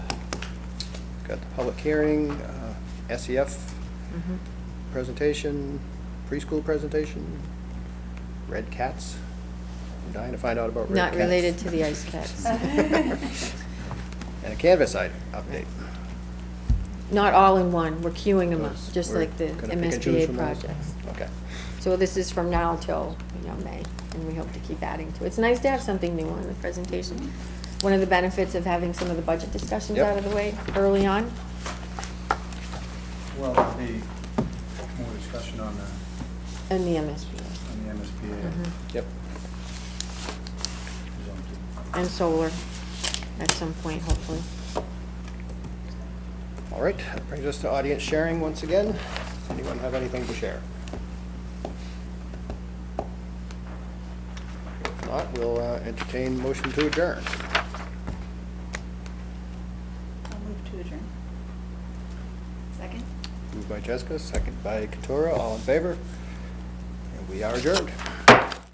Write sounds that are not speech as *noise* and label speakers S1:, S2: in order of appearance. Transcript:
S1: got the public hearing, uh, SEF
S2: Mm-hmm.
S1: presentation, preschool presentation, red cats. I'm dying to find out about red
S2: Not
S1: cats.
S2: related to the ice
S1: *laughs*
S2: cats.
S1: And a canvas item update.
S2: Not all in one, we're queuing them up, just
S1: We're
S2: like the
S1: gonna pick and choose
S2: MSBA
S1: from those?
S2: projects.
S1: Okay.
S2: So this is from now till, you know, May, and we hope to keep adding to it. It's nice to have something new on the presentation. One of the benefits of having some of the budget discussions
S1: Yep.
S2: out of the way early on.
S3: Well, there'll be more discussion on the,
S2: And the MSBA,
S3: on the MSBA.
S2: Mhm.
S1: Yep.
S2: and solar at some point, hopefully.
S1: All right, that brings us to audience sharing once again. Does anyone have anything to share? If not, we'll uh, entertain motion to adjourn.
S4: I'll move to adjourn. Second?
S1: Moved by Jessica, second by Katura, all in favor? And we are adjourned.